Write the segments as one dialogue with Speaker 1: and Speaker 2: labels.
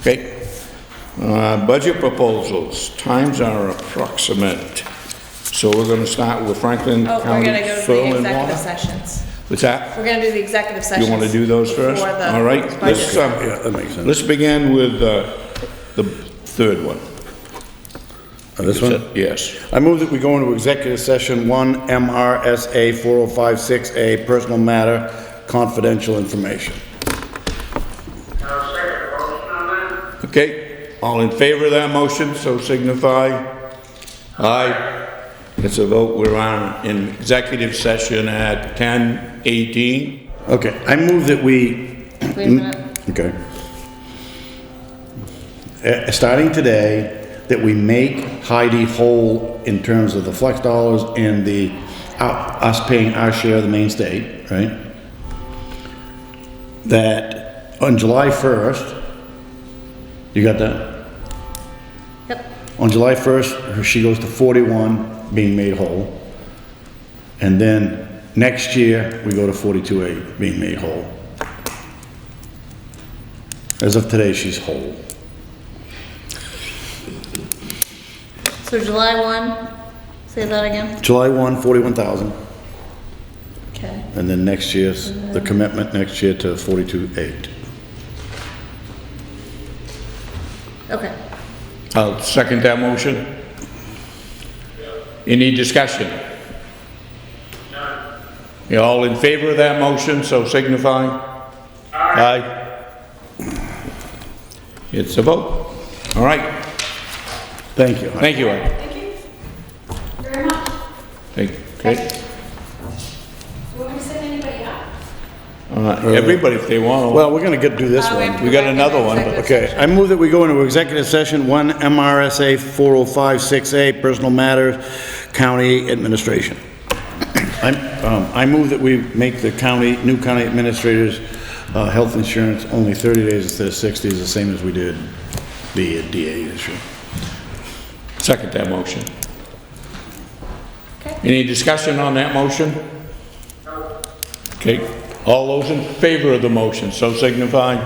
Speaker 1: Okay. Uh, Budget proposals, times are approximate. So we're gonna start with Franklin
Speaker 2: Oh, we're
Speaker 1: County
Speaker 2: gonna go to
Speaker 1: Soil
Speaker 2: the
Speaker 1: and
Speaker 2: executive
Speaker 1: Water.
Speaker 2: sessions.
Speaker 1: What's that?
Speaker 2: We're gonna do the executive sessions.
Speaker 1: You wanna do those first?
Speaker 2: before the
Speaker 1: All right, let's,
Speaker 2: budget.
Speaker 1: uh,
Speaker 3: Yeah, that makes sense.
Speaker 1: let's begin with uh, the third one.
Speaker 3: Uh, This one?
Speaker 1: Yes.
Speaker 3: I move that we go into executive session 1 MRSA 4056A, personal matter, confidential information.
Speaker 4: I'll second the motion on that.
Speaker 1: Okay, all in favor of that motion, so signify. Aye. It's a vote, we're on in executive session at 10:18.
Speaker 3: Okay, I move that we,
Speaker 2: Wait a minute.
Speaker 3: okay. Uh, Starting today, that we make Heidi whole in terms of the flex dollars and the, uh, us paying our share of the main state, right? That on July 1st, you got that?
Speaker 2: Yep.
Speaker 3: On July 1st, her- she goes to 41, being made whole. And then next year, we go to 42A, being made whole. As of today, she's whole.
Speaker 2: So July one, say that again.
Speaker 3: July 1, 41,000,
Speaker 2: Okay.
Speaker 3: and then next year's, the commitment next year to 42.8.
Speaker 2: Okay.
Speaker 1: I'll second that motion. Any discussion? You all in favor of that motion, so signify. Aye. It's a vote. All right,
Speaker 3: Thank you.
Speaker 1: thank you, Ed.
Speaker 5: Thank you very much.
Speaker 1: Thank you. Okay.
Speaker 5: Do you want me to send anybody up?
Speaker 1: Uh, Everybody, if they want.
Speaker 3: Well, we're gonna get, do this
Speaker 2: Uh,
Speaker 3: one.
Speaker 2: have to
Speaker 1: We
Speaker 2: go
Speaker 1: got
Speaker 2: back
Speaker 1: another
Speaker 2: into
Speaker 1: one, but-
Speaker 2: executive
Speaker 3: Okay, I move that we go into executive session 1 MRSA 4056A, personal matters, county administration. I'm, um, I move that we make the county, new county administrators, uh, health insurance only 30 days instead of 60, is the same as we did the DA issue.
Speaker 1: Second that motion.
Speaker 2: Okay.
Speaker 1: Any discussion on that motion? Okay, all those in favor of the motion, so signify.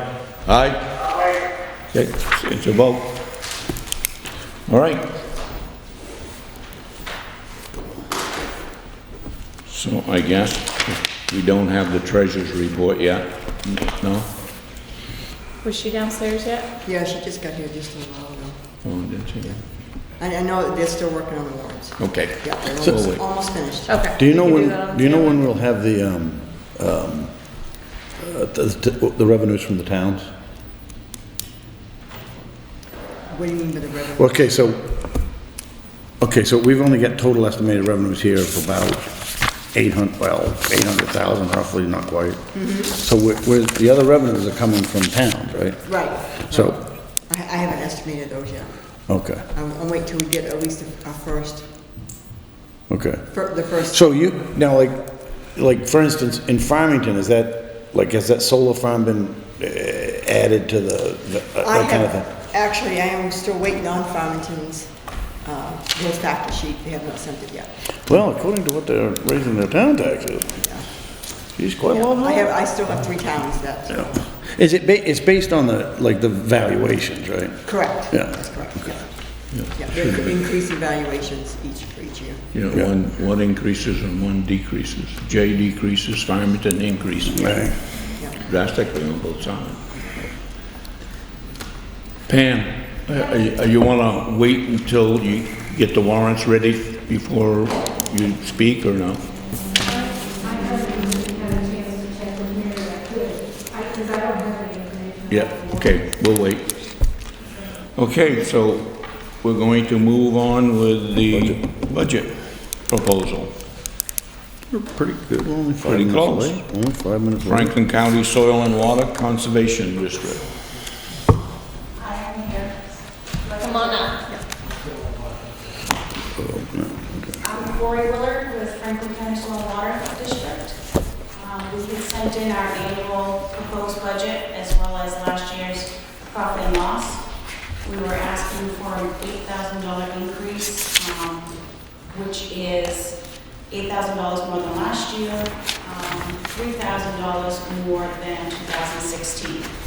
Speaker 1: Aye?
Speaker 4: Aye.
Speaker 1: Okay, it's a vote. All right. So I guess we don't have the treasurer's report yet, no?
Speaker 2: session. Was she downstairs yet?
Speaker 6: Yeah, she just got here just a little while ago.
Speaker 1: Oh, didn't you?
Speaker 6: I, I know they're still working on the warrants.
Speaker 1: Okay.
Speaker 6: Yeah, they're
Speaker 1: So-
Speaker 6: almost, almost finished.
Speaker 2: Okay.
Speaker 3: Do you know
Speaker 2: can
Speaker 3: when,
Speaker 2: that on
Speaker 3: do you know
Speaker 2: Tuesday.
Speaker 3: when we'll have the, um, um, uh, the the revenues from the towns?
Speaker 6: What do you mean by the revenue?
Speaker 3: Okay, so, okay, so we've only got total estimated revenues here of about 800, well, 800,000 roughly, not quite.
Speaker 6: Mm-hmm.
Speaker 3: So where, where, the other revenues are coming from towns, right?
Speaker 6: Right.
Speaker 3: So-
Speaker 6: right. I, I haven't estimated those yet.
Speaker 3: Okay,
Speaker 6: I'll, I'll wait till we get at least our first,
Speaker 3: okay.
Speaker 6: fir- the first.
Speaker 3: So you, now like, like for instance, in Farmington, is that, like, has that solar farm been uh, added to the, the-
Speaker 6: I
Speaker 3: that kind of thing?
Speaker 6: have, actually, I am still waiting on Farmington's, uh, those factor sheet. They have not sent it yet.
Speaker 3: Well, according to what they're raising their town taxes,
Speaker 6: Yeah.
Speaker 3: geez, quite a lot
Speaker 6: I have,
Speaker 3: higher.
Speaker 6: I still have three towns that,
Speaker 3: Is it, ba- it's based on the, like, the valuations, right?
Speaker 6: correct.
Speaker 3: Yeah.
Speaker 6: That's correct, yeah. Yeah, they're increasing valuations each, for each year.
Speaker 1: You know,
Speaker 3: Yeah.
Speaker 1: one, one increases and one decreases. J decreases, Farmington increases.
Speaker 3: Right.
Speaker 1: Drastically on both sides. Pam, uh, you- uh, you want to wait until you get the warrants ready before you speak or no?
Speaker 5: I haven't had a chance to check with Mary, I could, because I don't have any information.
Speaker 1: Yeah, okay, we'll wait. Okay, so we're going to move on with the budget proposal.
Speaker 3: Pretty good, only five
Speaker 1: Pretty
Speaker 3: minutes
Speaker 1: close.
Speaker 3: late. Only five minutes late.
Speaker 1: Franklin County Soil and Water Conservation District.
Speaker 2: Come on up.
Speaker 5: I'm Lori Willard with Franklin County Soil and Water District. Um, We had sent in our annual proposed budget as well as last year's profit and loss. We were asking for an $8,000 increase, um, which is $8,000 more than last year, um, $3,000 more than 2016.